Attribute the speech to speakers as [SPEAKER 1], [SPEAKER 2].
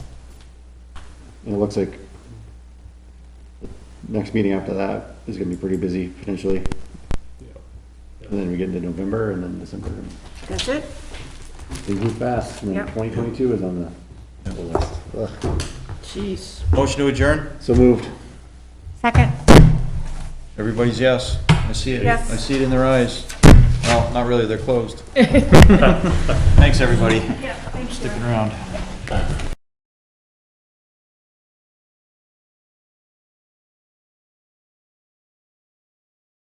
[SPEAKER 1] And it looks like the next meeting after that is gonna be pretty busy potentially. And then we get into November and then December,
[SPEAKER 2] That's it?
[SPEAKER 1] they move fast, and then
[SPEAKER 2] Yep.
[SPEAKER 1] twenty twenty-two is on the the list. Ugh.
[SPEAKER 2] Jeez.
[SPEAKER 3] Motion to adjourn?
[SPEAKER 1] So moved.
[SPEAKER 2] Second.
[SPEAKER 3] Everybody's yes. I see it.
[SPEAKER 2] Yes.
[SPEAKER 3] I see it in their eyes. Well, not really, they're closed. Thanks, everybody. Sticking around.